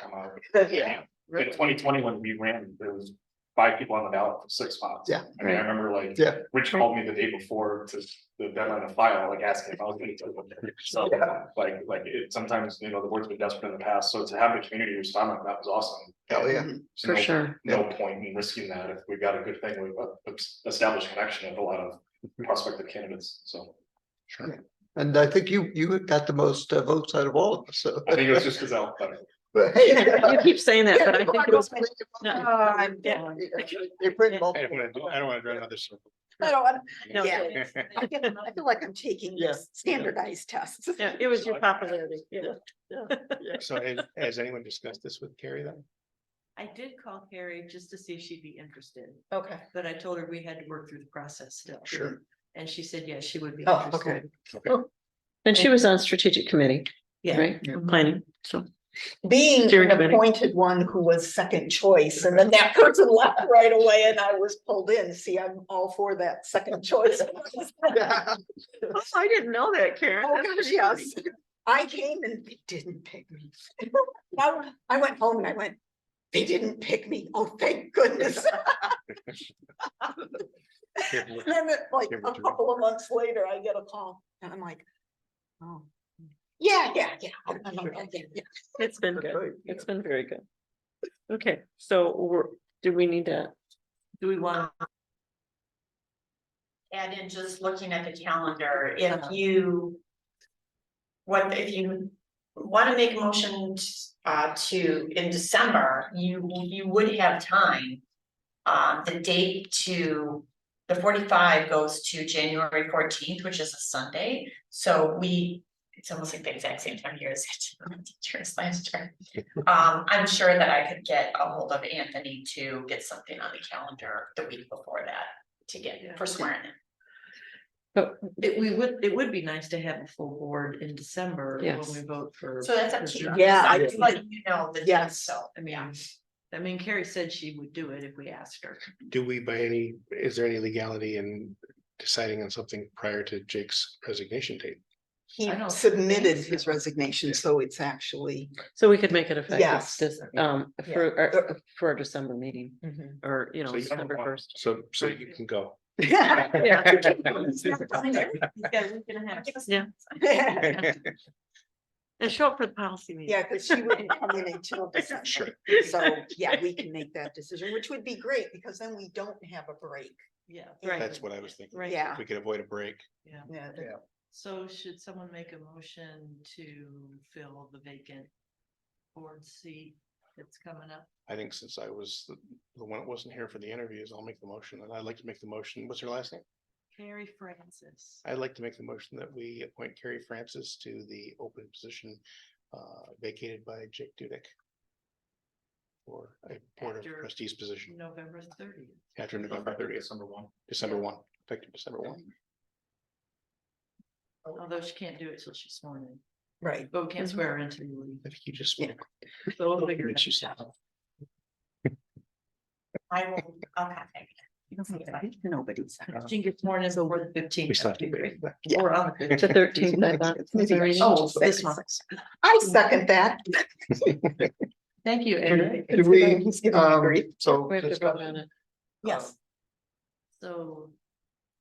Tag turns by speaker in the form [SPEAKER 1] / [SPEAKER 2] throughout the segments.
[SPEAKER 1] come out.
[SPEAKER 2] Yeah.
[SPEAKER 1] In twenty twenty, when we ran, there was five people on the ballot for six spots.
[SPEAKER 3] Yeah.
[SPEAKER 1] I mean, I remember like,
[SPEAKER 3] Yeah.
[SPEAKER 1] Rich called me the day before to the deadline to file, like asking if I was gonna take it. So,
[SPEAKER 3] Yeah.
[SPEAKER 1] like, like it, sometimes, you know, the board's been desperate in the past, so to have the community respond like that was awesome.
[SPEAKER 3] Hell, Oh, yeah.
[SPEAKER 1] So
[SPEAKER 2] For
[SPEAKER 1] no-
[SPEAKER 2] sure.
[SPEAKER 1] No point in risking that if we've got a good thing, we've uh, established connection with a lot of prospective candidates, so.
[SPEAKER 3] And I think you, you got the most uh, votes out of all of us, so.
[SPEAKER 1] I think it was just because I'll, but
[SPEAKER 3] But hey,
[SPEAKER 2] You keep saying that, but I think it was.
[SPEAKER 3] yeah.
[SPEAKER 2] No,
[SPEAKER 3] Yeah, They print
[SPEAKER 4] I don't
[SPEAKER 3] multiple.
[SPEAKER 4] wanna, do- I don't wanna drive another circle.
[SPEAKER 5] I don't want,
[SPEAKER 2] no,
[SPEAKER 5] Yeah.
[SPEAKER 2] it's-
[SPEAKER 5] I feel- I feel like I'm taking
[SPEAKER 3] Yeah.
[SPEAKER 5] these standardized tests.
[SPEAKER 2] yeah, it was your popularity, you know.
[SPEAKER 4] So has, has anyone discussed this with Carrie then?
[SPEAKER 6] I did call Carrie just to see if she'd be interested,
[SPEAKER 2] Okay.
[SPEAKER 6] but I told her we had to work through the process still.
[SPEAKER 4] Sure.
[SPEAKER 6] And she said, yes, she would be
[SPEAKER 2] Oh,
[SPEAKER 6] interested.
[SPEAKER 2] And she was on strategic committee,
[SPEAKER 6] Yeah,
[SPEAKER 2] right? Planning, so.
[SPEAKER 5] Being
[SPEAKER 2] Steering
[SPEAKER 5] an
[SPEAKER 2] committee.
[SPEAKER 5] appointed one who was second choice and then that person left right away and I was pulled in. See, I'm all for that second choice.
[SPEAKER 3] Yeah.
[SPEAKER 2] Oh, I didn't know that, Karen.
[SPEAKER 5] Oh,
[SPEAKER 2] That's
[SPEAKER 5] gosh,
[SPEAKER 2] pretty funny.
[SPEAKER 5] yes. I came and they didn't pick me. I went- I went home and I went, they didn't pick me. Oh, thank goodness.
[SPEAKER 4] Here,
[SPEAKER 5] And Then it, like
[SPEAKER 4] Give it to
[SPEAKER 5] a
[SPEAKER 4] me.
[SPEAKER 5] couple of months later, I get a call and I'm like, oh. Yeah, yeah, yeah. I- I know, yeah, yeah, yeah.
[SPEAKER 2] It's been
[SPEAKER 3] That's
[SPEAKER 2] good.
[SPEAKER 3] right, yeah.
[SPEAKER 2] It's been very good. Okay, so we're, do we need to,
[SPEAKER 6] do we want,
[SPEAKER 7] add in just looking at the calendar, if you. What if you wanna make a motion uh to in December, you you would have time. Uh the date to the forty-five goes to January fourteenth, which is a Sunday, so we. It's almost like the exact same time here as teachers last year. Um I'm sure that I could get a hold of Anthony to get something on the calendar the week before that to get for swearing in.
[SPEAKER 2] but
[SPEAKER 6] it, we would, it would be nice to have a full board in December when
[SPEAKER 2] Yes.
[SPEAKER 6] we vote for.
[SPEAKER 7] So that's up to you.
[SPEAKER 5] Yeah, I
[SPEAKER 7] I'm just
[SPEAKER 5] think-
[SPEAKER 7] letting you know the date,
[SPEAKER 5] Yes.
[SPEAKER 7] so.
[SPEAKER 6] I mean, I mean, Carrie said she would do it if we asked her.
[SPEAKER 4] Do we by any, is there any legality in deciding on something prior to Jake's resignation date?
[SPEAKER 5] He
[SPEAKER 6] I don't
[SPEAKER 5] submitted
[SPEAKER 6] think
[SPEAKER 5] his
[SPEAKER 6] so.
[SPEAKER 5] resignation, so it's actually.
[SPEAKER 2] so we could make it effective
[SPEAKER 5] Yes.
[SPEAKER 2] this, um, for, our for our December meeting
[SPEAKER 6] Mm-hmm.
[SPEAKER 2] or, you know,
[SPEAKER 1] So you don't
[SPEAKER 2] December
[SPEAKER 1] want-
[SPEAKER 2] first.
[SPEAKER 4] So, so you can go.
[SPEAKER 2] Yeah,
[SPEAKER 5] Yeah,
[SPEAKER 2] and show up for the policy meeting.
[SPEAKER 5] because she wouldn't come in until
[SPEAKER 4] Sure.
[SPEAKER 5] December. So, yeah, we can make that decision, which would be great because then we don't have a break.
[SPEAKER 6] Yeah.
[SPEAKER 2] Right.
[SPEAKER 4] That's what I was thinking.
[SPEAKER 2] Right.
[SPEAKER 5] Yeah.
[SPEAKER 4] If we could avoid a break.
[SPEAKER 5] Yeah.
[SPEAKER 6] So should someone make a motion to fill the vacant board seat that's coming up?
[SPEAKER 4] I think since I was the the one that wasn't here for the interviews, I'll make the motion and I'd like to make the motion. What's her last name?
[SPEAKER 6] Carrie Francis.
[SPEAKER 4] I'd like to make the motion that we appoint Carrie Francis to the open position uh, vacated by Jake Dudek. For a Board of
[SPEAKER 6] After-
[SPEAKER 4] Trustees position
[SPEAKER 6] November thirtieth.
[SPEAKER 4] after November thirtieth,
[SPEAKER 1] December one.
[SPEAKER 4] December one, effective December one.
[SPEAKER 6] Although she can't do it till she's sworn in,
[SPEAKER 5] Right.
[SPEAKER 6] but we can't swear her into leaving.
[SPEAKER 4] I think you just.
[SPEAKER 5] Yeah.
[SPEAKER 6] So we'll figure it
[SPEAKER 4] Makes you
[SPEAKER 6] out.
[SPEAKER 4] sound-
[SPEAKER 7] I will, I'll contact
[SPEAKER 5] Nobody's.
[SPEAKER 6] She can get sworn in before the fifteenth.
[SPEAKER 4] We still have to debate that.
[SPEAKER 6] Or on the
[SPEAKER 2] To
[SPEAKER 6] fifteenth.
[SPEAKER 2] thirteenth, I thought. was the meeting.
[SPEAKER 6] Oh, this one.
[SPEAKER 5] I second that.
[SPEAKER 6] Thank you, Eric.
[SPEAKER 3] Do we,
[SPEAKER 5] He's giving me
[SPEAKER 3] um,
[SPEAKER 5] grief.
[SPEAKER 3] so,
[SPEAKER 2] We have to
[SPEAKER 3] just-
[SPEAKER 2] vote on it.
[SPEAKER 5] Yes,
[SPEAKER 6] So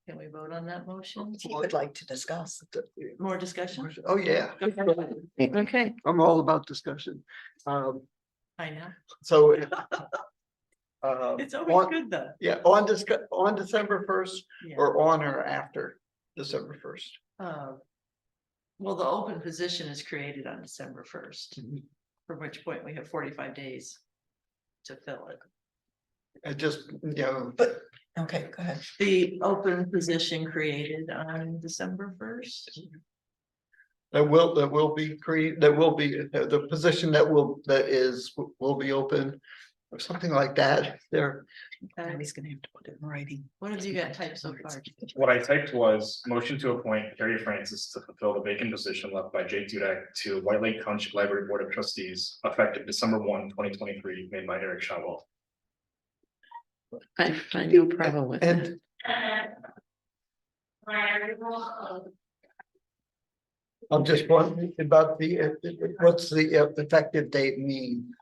[SPEAKER 6] can we vote on that motion?
[SPEAKER 5] he would like to discuss.
[SPEAKER 6] More discussion?
[SPEAKER 3] oh, yeah,
[SPEAKER 2] Okay,
[SPEAKER 3] I'm all about discussion. Um,
[SPEAKER 6] I know.
[SPEAKER 3] so. Uh,
[SPEAKER 6] It's always
[SPEAKER 3] on,
[SPEAKER 6] good though.
[SPEAKER 3] yeah, on Dec- on December first
[SPEAKER 6] Yeah.
[SPEAKER 3] or on or after December first.
[SPEAKER 6] Uh, Well, the open position is created on December first,
[SPEAKER 3] Mm-hmm.
[SPEAKER 6] from which point we have forty-five days to fill it.
[SPEAKER 3] I just, you know,
[SPEAKER 5] But, okay, go ahead.
[SPEAKER 6] The open position created on December first.
[SPEAKER 3] that will, that will be created, that will be, uh, the position that will, that is, will be open. Or something like that, there,
[SPEAKER 5] Now he's gonna have to put it in writing.
[SPEAKER 6] What have you got typed so far?
[SPEAKER 1] What I typed was motion to appoint Carrie Francis to fulfill the vacant position left by Jake Dudek to White Lake Township Library Board of Trustees effective December 1, 2023, made by Eric Shotwell.
[SPEAKER 2] I find no problem with it.
[SPEAKER 3] and
[SPEAKER 7] you.
[SPEAKER 3] I'm just wondering about the, uh, what's the uh, effective date mean?